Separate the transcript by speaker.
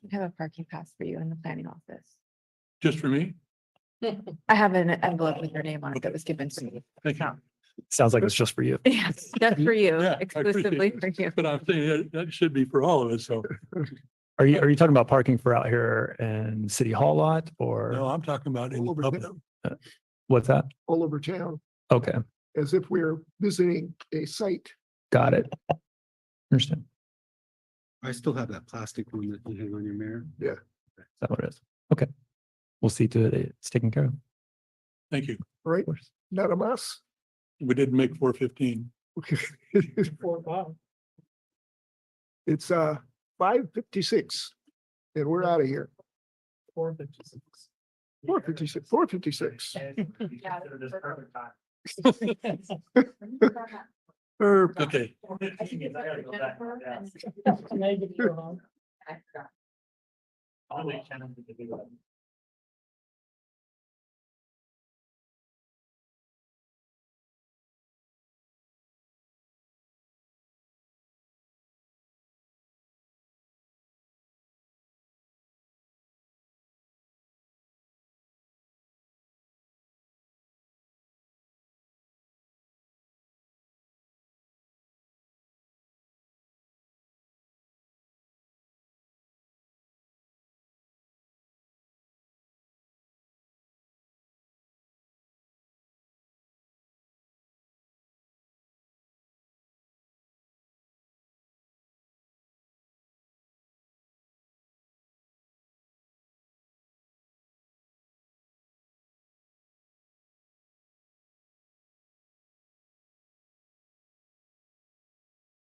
Speaker 1: have a parking pass for you in the planning office.
Speaker 2: Just for me?
Speaker 1: I have an envelope with your name on it that was given to me.
Speaker 2: Thank you.
Speaker 3: Sounds like it's just for you.
Speaker 1: Yes, that's for you,
Speaker 2: Yeah, I appreciate
Speaker 1: exclusively
Speaker 2: it.
Speaker 1: for you.
Speaker 2: But I'm saying that, that should be for all of us. So,
Speaker 3: Are you, are you talking about parking for out here in City Hall lot
Speaker 2: no,
Speaker 3: or
Speaker 2: I'm talking about in the
Speaker 4: Over
Speaker 2: public.
Speaker 4: there.
Speaker 3: what's that?
Speaker 4: all over town
Speaker 3: Okay,
Speaker 4: as if we're visiting a site.
Speaker 3: got it. Understand. Is
Speaker 5: I still have that plastic one that you hang on your mirror.
Speaker 3: that what it is? Okay. We'll see to it. It's taken care of. Of
Speaker 2: Thank you.
Speaker 4: Right,
Speaker 3: course.
Speaker 4: not a mess.
Speaker 2: We didn't make four fifteen.
Speaker 4: Okay. It's uh five fifty-six and we're out of here. Four fifty-six. Four fifty-six, four fifty-six.
Speaker 2: Okay.